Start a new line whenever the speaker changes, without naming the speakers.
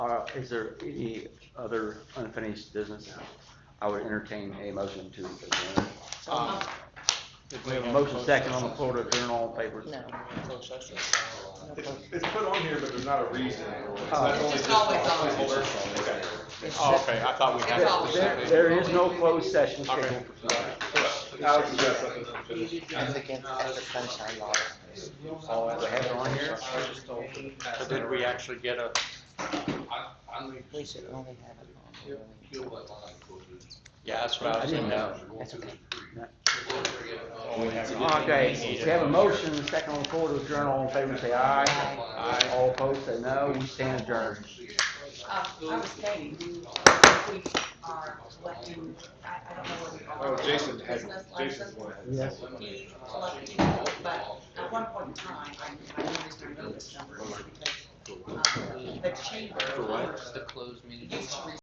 Uh, is there any other unfinished business? I would entertain a motion to adjourn.
Um,
We have a motion second on the floor to adjourn all papers.
No.
Closed session.
It's, it's put on here, but there's not a reason. It's
Oh.
not
It's
only
just
just
always
a
on.
placeholder. Okay.
It's
Oh,
just-
okay, I thought we had.
That's all we
There, there is no closed session scheduled for tonight.
Alex has got something to finish.
It's against the sunshine law.
Oh, do I have it on here?
So did we actually get a,
We should only have it on. the-
yeah, that's what I
I
was
didn't
thinking.
know.
That's okay.
Okay, we have a motion second on the floor to adjourn all in favor, say aye.
Aye.
All opposed, say no. We stand adjourned.
Um, I was saying, if we are electing, I, I don't know what we are.
Oh, Jason has,
Business license,
Jason's one.
Yes.
we elect people, but at one point in time, I, I noticed I know this number, is because, um, the chamber.
For what?
The closed meeting. Used to